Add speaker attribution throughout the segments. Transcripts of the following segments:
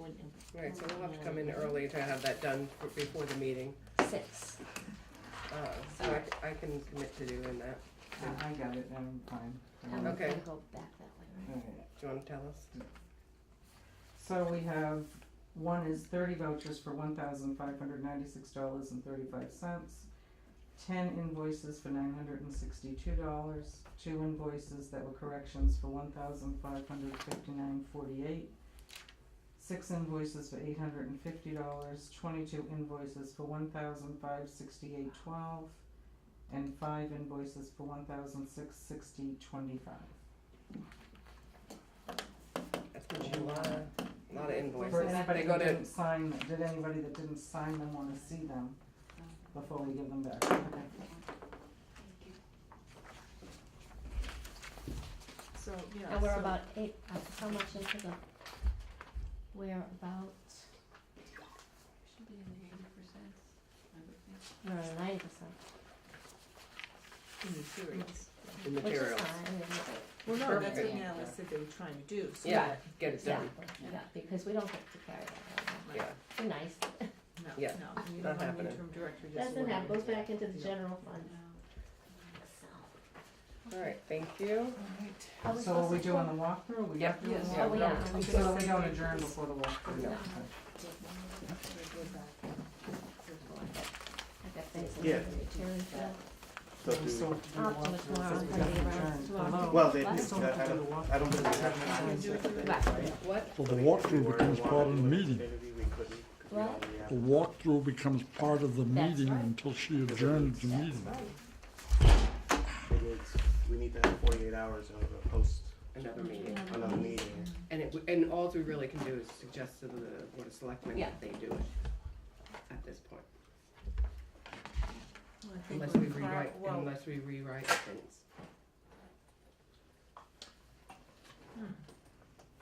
Speaker 1: Alright, so we'll have to come in early to have that done for- before the meeting,
Speaker 2: six.
Speaker 1: uh, so I, c- I can commit to doing that.
Speaker 3: I got it, I'm fine.
Speaker 2: Um,
Speaker 1: Okay.
Speaker 2: we'll Go back that way, right?
Speaker 3: Alright.
Speaker 1: Do you wanna tell us?
Speaker 3: So we have, one is thirty vouchers for one thousand five hundred ninety-six dollars and thirty-five cents. Ten invoices for nine hundred and sixty-two dollars, two invoices that were corrections for one thousand five hundred fifty-nine forty-eight. Six invoices for eight hundred and fifty dollars, twenty-two invoices for one thousand five sixty-eight twelve, and five invoices for one thousand six sixty twenty-five.
Speaker 1: That's what you want, a lot of
Speaker 3: Uh, For
Speaker 1: invoices,
Speaker 3: anybody
Speaker 1: they go
Speaker 3: that
Speaker 1: to,
Speaker 3: didn't sign, did anybody that didn't sign them wanna see them? before we give them back.
Speaker 4: So, yeah.
Speaker 2: And we're
Speaker 4: so-
Speaker 2: about eight, uh, how much into the, we're about,
Speaker 4: Should be in the eighty percent, I would think.
Speaker 2: we're at ninety percent,
Speaker 4: In theory.
Speaker 1: the
Speaker 2: which is
Speaker 1: materials.
Speaker 2: fine, I mean, it's-
Speaker 4: Well, no, that's what
Speaker 1: Perfect.
Speaker 4: Natalie said they were trying to do, so.
Speaker 1: Yeah,
Speaker 4: that-
Speaker 1: get it
Speaker 2: yeah,
Speaker 1: done,
Speaker 2: yeah, because we don't get to carry that around.
Speaker 1: yeah,
Speaker 2: Be nice,
Speaker 4: No, no,
Speaker 1: Yeah.
Speaker 4: you
Speaker 1: Not
Speaker 4: don't want an
Speaker 1: happening.
Speaker 4: interim director just.
Speaker 2: doesn't have,
Speaker 4: lording
Speaker 2: goes
Speaker 4: it.
Speaker 2: back into the
Speaker 4: Yeah.
Speaker 2: general fund,
Speaker 4: No.
Speaker 2: so.
Speaker 1: alright, thank you.
Speaker 4: Alright.
Speaker 2: Are we
Speaker 3: So are we
Speaker 2: supposed to-
Speaker 3: doing the walkthrough? We
Speaker 1: Yep.
Speaker 3: have to do the
Speaker 4: Yes.
Speaker 2: Oh, we
Speaker 3: walkthrough?
Speaker 2: are.
Speaker 3: So that we don't adjourn before the walkthrough?
Speaker 1: No.
Speaker 2: I got things to
Speaker 5: Yeah.
Speaker 2: do, materials, uh,
Speaker 5: So
Speaker 3: We still
Speaker 5: do,
Speaker 3: have to do
Speaker 2: Up
Speaker 3: the
Speaker 2: to
Speaker 3: walkthrough,
Speaker 2: the tomorrow,
Speaker 3: so we
Speaker 2: Sunday
Speaker 3: have to
Speaker 2: around
Speaker 3: adjourn.
Speaker 2: tomorrow.
Speaker 3: Hello?
Speaker 5: well, they,
Speaker 3: We
Speaker 2: What?
Speaker 3: still have
Speaker 5: I
Speaker 3: to do the
Speaker 5: don't,
Speaker 3: walkthrough.
Speaker 5: I don't think we have
Speaker 4: Wanna
Speaker 5: time.
Speaker 4: do it through the-
Speaker 1: What?
Speaker 6: Well, the walkthrough
Speaker 5: If we
Speaker 6: becomes
Speaker 5: wanted
Speaker 6: part
Speaker 5: to
Speaker 6: of the
Speaker 5: do it
Speaker 6: meeting.
Speaker 5: maybe we couldn't, 'cause we
Speaker 2: What?
Speaker 5: already have-
Speaker 6: The walkthrough becomes part of the
Speaker 2: That's
Speaker 6: meeting
Speaker 2: right.
Speaker 6: until she adjourns the meeting.
Speaker 5: it needs- We need to have forty-eight hours of a post,
Speaker 1: Another meeting,
Speaker 5: another meeting.
Speaker 1: and it, w- and all we really can do is suggest to the board of selectmen
Speaker 2: Yeah.
Speaker 1: that they do it at this point,
Speaker 4: Well, I think
Speaker 1: unless
Speaker 4: we're
Speaker 1: we
Speaker 4: far-
Speaker 1: rewrite,
Speaker 4: well,
Speaker 1: unless we rewrite things.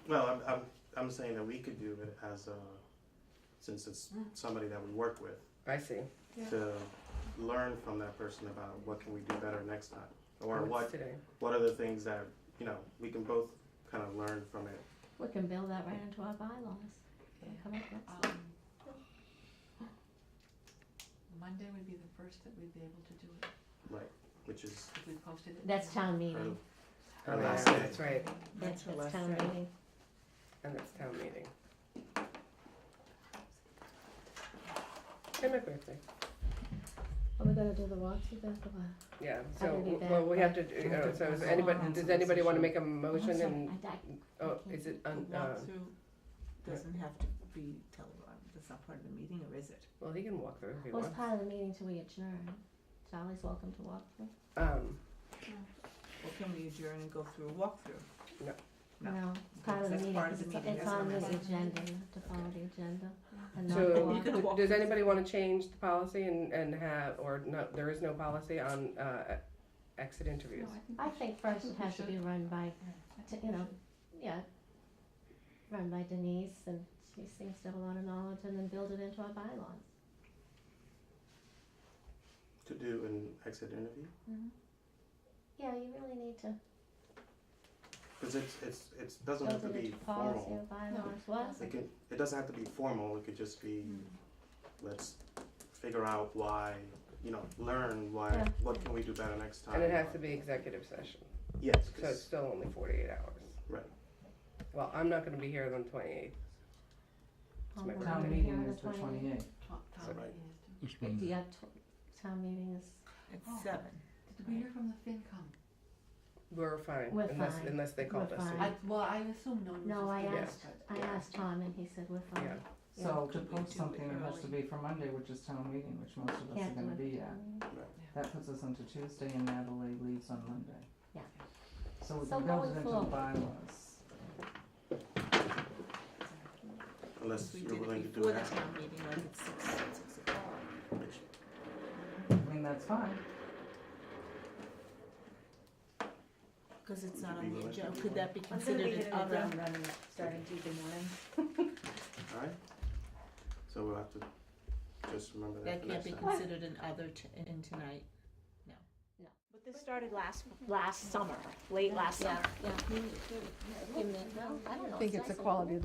Speaker 5: Well, I'm, I'm, I'm saying that we could do it as a, since it's somebody that we work with,
Speaker 1: I see,
Speaker 5: to learn from that person about what can we do better next time? Or
Speaker 1: What's
Speaker 5: what,
Speaker 1: today,
Speaker 5: what are the things that, you know, we can both kind of learn from it.
Speaker 2: We can build that right into our bylaws, We'll come up with
Speaker 4: um, Monday would be the first that we'd be able to do it,
Speaker 5: Which is
Speaker 4: if we posted it.
Speaker 2: That's town
Speaker 5: our,
Speaker 2: meeting,
Speaker 5: our
Speaker 1: Oh,
Speaker 5: last
Speaker 1: yeah,
Speaker 5: day.
Speaker 1: that's right,
Speaker 2: that's,
Speaker 4: That's her
Speaker 2: that's
Speaker 4: last
Speaker 2: town
Speaker 4: day.
Speaker 2: meeting,
Speaker 1: and it's town meeting. And my birthday,
Speaker 2: are we gonna do the walkthrough after what?
Speaker 1: yeah,
Speaker 2: I
Speaker 1: so,
Speaker 2: will be
Speaker 1: w-
Speaker 2: back.
Speaker 1: well, we have to, do-
Speaker 3: have
Speaker 1: uh,
Speaker 3: to
Speaker 1: so is
Speaker 3: pass
Speaker 1: anybody,
Speaker 3: along
Speaker 1: does
Speaker 3: the
Speaker 1: anybody wanna
Speaker 3: decision.
Speaker 1: make a
Speaker 2: I'm
Speaker 1: motion
Speaker 2: sorry,
Speaker 1: and,
Speaker 2: I- I-
Speaker 1: oh, is it,
Speaker 4: The
Speaker 1: un- uh,
Speaker 4: walkthrough
Speaker 5: Uh,
Speaker 4: doesn't have to be televised, that's not part of the meeting, or is it?
Speaker 1: well, he can walk through if he
Speaker 2: Well,
Speaker 1: wants.
Speaker 2: it's part of the meeting till we adjourn. Charlie's welcome to walk through.
Speaker 1: Um,
Speaker 4: Or can we adjourn and go through a walkthrough? No.
Speaker 2: it's part of the
Speaker 4: That's
Speaker 2: meeting,
Speaker 4: part
Speaker 2: 'cause
Speaker 4: of the
Speaker 2: it's,
Speaker 4: meeting,
Speaker 2: it's
Speaker 4: that's
Speaker 2: on
Speaker 4: what
Speaker 2: the
Speaker 4: I'm saying.
Speaker 2: agenda, you have to follow the agenda. And not the
Speaker 1: so,
Speaker 4: You
Speaker 2: walk-
Speaker 4: can walk
Speaker 1: d- does
Speaker 4: through.
Speaker 1: anybody wanna change the policy and, and have, or no, there is no policy on, uh, exit interviews?
Speaker 2: I think first it
Speaker 4: we
Speaker 2: has to be run by, t- you know, yeah, run by Denise, and she seems to have a lot of knowledge, and then build it into our bylaws.
Speaker 5: To do an exit interview?
Speaker 2: Yeah, you really need to
Speaker 5: Because it's, it's, it doesn't have
Speaker 2: build
Speaker 5: to
Speaker 2: it
Speaker 5: be
Speaker 2: into policy
Speaker 5: formal.
Speaker 2: or bylaws, what?
Speaker 5: It can, it doesn't have to be formal, it could just be,
Speaker 4: Mm,
Speaker 5: let's figure out why, you know, learn why,
Speaker 2: Yeah.
Speaker 5: what can we do better next time?
Speaker 1: And it has to be executive session,
Speaker 5: Yes,
Speaker 1: so it's
Speaker 5: 'cause-
Speaker 1: still only forty-eight hours.
Speaker 5: Right.
Speaker 1: Well, I'm not gonna be here on the twenty-eighth,
Speaker 2: Oh,
Speaker 1: my
Speaker 2: we're
Speaker 3: Town
Speaker 2: gonna be here
Speaker 3: meeting
Speaker 2: on
Speaker 3: is the twenty-eighth.
Speaker 5: Right.
Speaker 6: It's been-
Speaker 2: 28th. Yeah, tw- town meeting is,
Speaker 4: At seven.
Speaker 7: Did we hear from the FinCom?
Speaker 1: we're fine,
Speaker 2: We're
Speaker 1: unless,
Speaker 2: fine.
Speaker 1: unless they
Speaker 2: We're
Speaker 1: called us.
Speaker 2: fine.
Speaker 7: I, well, I assume no news
Speaker 2: no,
Speaker 7: was
Speaker 2: I
Speaker 7: given,
Speaker 2: asked,
Speaker 7: but-
Speaker 2: I asked Tom, and he said, we're fine. Yeah.
Speaker 3: So to
Speaker 4: Could we
Speaker 3: post
Speaker 4: do it
Speaker 3: something, it has to
Speaker 4: early?
Speaker 3: be for Monday, which is town meeting, which most of us are
Speaker 2: Can't do
Speaker 3: gonna
Speaker 2: it. Mm-hmm.
Speaker 3: be at. That puts us into Tuesday and Natalie leaves on Monday.
Speaker 2: Yeah.
Speaker 3: So we
Speaker 2: So
Speaker 3: can build
Speaker 2: going
Speaker 3: it into the
Speaker 2: forward.
Speaker 3: bylaws.
Speaker 5: Unless
Speaker 4: We
Speaker 5: you're
Speaker 4: did
Speaker 5: willing to
Speaker 4: it
Speaker 5: do
Speaker 4: before
Speaker 5: it
Speaker 4: the
Speaker 5: after,
Speaker 4: town meeting, like at six, six o'clock.
Speaker 5: which
Speaker 3: I mean, that's fine.
Speaker 4: Cause it's
Speaker 5: Would
Speaker 4: not
Speaker 5: you
Speaker 4: on
Speaker 5: be
Speaker 4: the
Speaker 5: willing to
Speaker 4: agenda,
Speaker 5: do
Speaker 4: could
Speaker 5: one?
Speaker 4: that be considered an other?
Speaker 7: running starting Tuesday morning.
Speaker 5: Alright, so we'll have to just remember that
Speaker 4: That
Speaker 5: for
Speaker 4: can't
Speaker 5: next
Speaker 4: be
Speaker 5: time.
Speaker 4: considered an other t- in tonight, no.
Speaker 2: No.
Speaker 4: But this started last.
Speaker 2: Last summer, late last
Speaker 4: Yeah, yeah.
Speaker 2: I think it's a quality